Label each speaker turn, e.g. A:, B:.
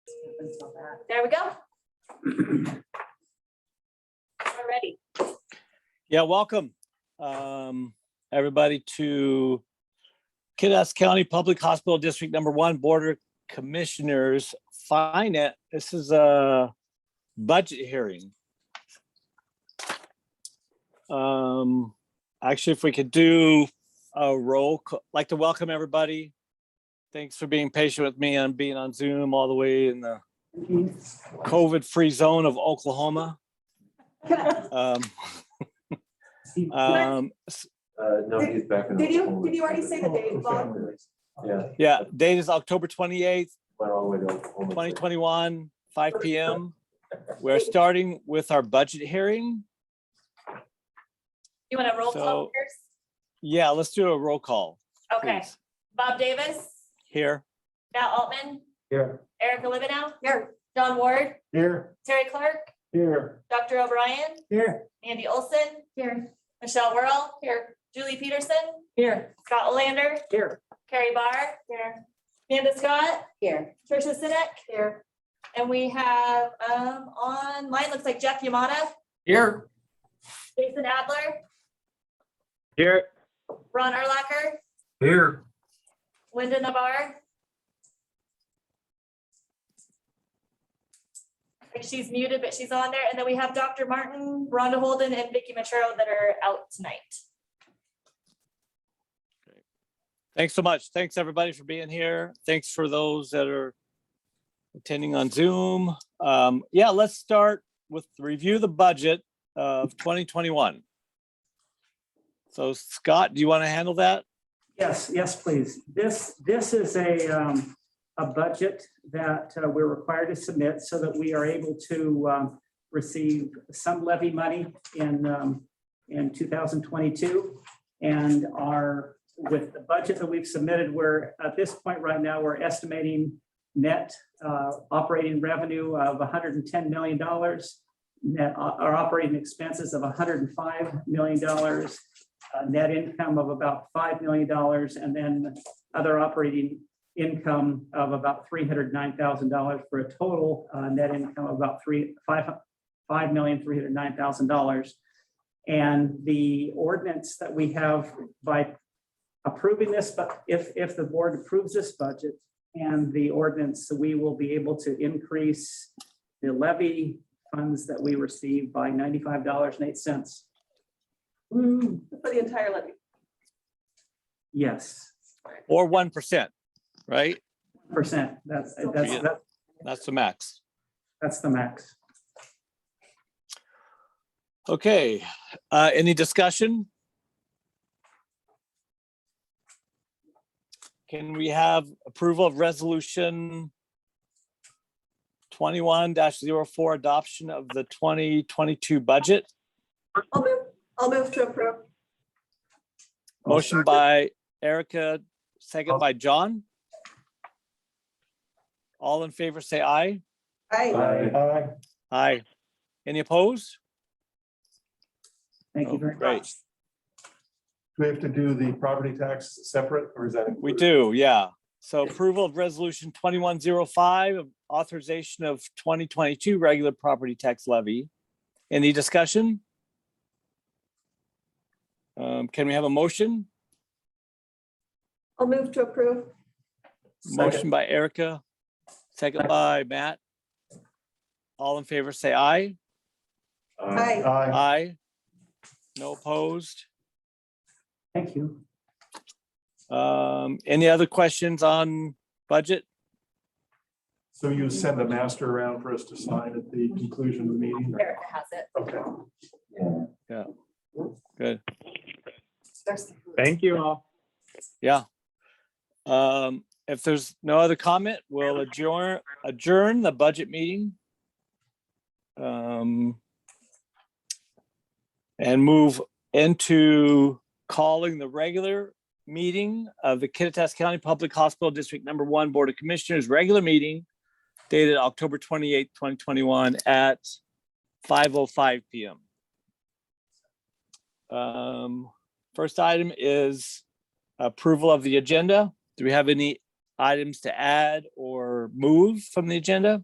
A: until that.
B: There we go. We're ready.
C: Yeah, welcome, um, everybody to Kidderminster County Public Hospital District Number One Board of Commissioners Finance. This is a budget hearing. Um, actually, if we could do a roll, ca- like to welcome everybody. Thanks for being patient with me and being on Zoom all the way in the COVID-free zone of Oklahoma. Um, um, s-
D: Uh, no, he's back in.
A: Did you,
D: Oklahoma.
A: did you already say the
D: Oh,
A: date, Bob?
D: Yeah,
C: yeah, date is October twenty-eighth,
D: went all the way to Oklahoma.
C: twenty twenty-one, five P M. We're starting with our budget hearing.
B: You want to roll call
C: So-
B: first?
C: Yeah, let's do a roll call.
B: Okay,
C: please.
B: Bob Davis,
C: Here,
B: Matt Altman,
D: Here.
B: Erica Livenow,
A: Here,
B: John Ward,
D: Here.
B: Terry Clark,
D: Here.
B: Dr. O'Brien,
D: Here.
B: Andy Olson,
A: here,
B: Michelle Whirl, here, Julie Peterson,
A: here,
B: Scott Lander,
A: here,
B: Carrie Barr, here, Amanda Scott,
A: here.
B: Tricia Sinek, here. And we have, um, online, looks like Jeff Yamada,
D: Here.
B: Jason Adler,
D: Here.
B: Ron Erlacher,
D: Here.
B: Linda Nabar. Like she's muted, but she's on there. And then we have Dr. Martin, Rhonda Holden, and Vicky Machero that are out tonight.
C: thanks so much. Thanks, everybody, for being here. Thanks for those that are attending on Zoom. Um, yeah, let's start with the review of the budget of twenty twenty-one. So Scott, do you want to handle that?
E: Yes, yes, please. This, this is a, um, a budget that uh, we're required to submit so that we are able to, um, receive some levy money in, um, in two thousand twenty-two. And our, with the budget that we've submitted, we're, at this point right now, we're estimating net, uh, operating revenue of hundred and ten million dollars. Net, o- our operating expenses of hundred and five million dollars uh, net income of about $5 million and then other operating income of about $309,000 for a total uh, net income of about three, five, $5,309,000. And the ordinance that we have by approving this, but if, if the board approves this budget and the ordinance, we will be able to increase the levy funds that we receive by $95.08.
A: Mm-hmm. For the entire levy.
E: Yes.
C: Or one percent, right?
E: percent. That's, that's,
C: Yeah.
E: that-
C: That's the max.
E: that's the max.
C: Okay, uh, any discussion? Can we have approval of resolution twenty-one 4 adoption of the twenty twenty-two budget?
A: I'll move, I'll move to approve.
C: Motion by Erica, second by John. All in favor, say aye.
A: Aye.
D: Aye.
C: Aye. Any opposed?
E: Thank
C: Oh,
E: you very
C: great.
E: much.
D: Do we have to do the property tax separate or is that?
C: We
D: included?
C: do, yeah. So approval of resolution twenty-one zero five, authorization of twenty twenty-two regular property tax levy. Any discussion? Um, can we have a motion?
A: I'll move to approve.
C: Motion by Erica, second by Matt. All in favor, say aye.
A: Aye.
D: Aye.
C: Aye. No opposed.
E: Thank you.
C: Um, any other questions on budget?
D: So you send a master around for us to sign at the conclusion of the meeting?
B: Erica has it.
D: Okay.
A: There's-
F: Thank you all.
C: Um, if there's no other comment, we'll adjourn, adjourn the budget meeting. Um. And move into calling the regular meeting of the Kittitas County Public Hospital District Number One Board of Commissioners, regular meeting dated October twenty-eighth, twenty twenty-one at five oh five PM. Um, first item is approval of the agenda. Do we have any items to add or move from the agenda?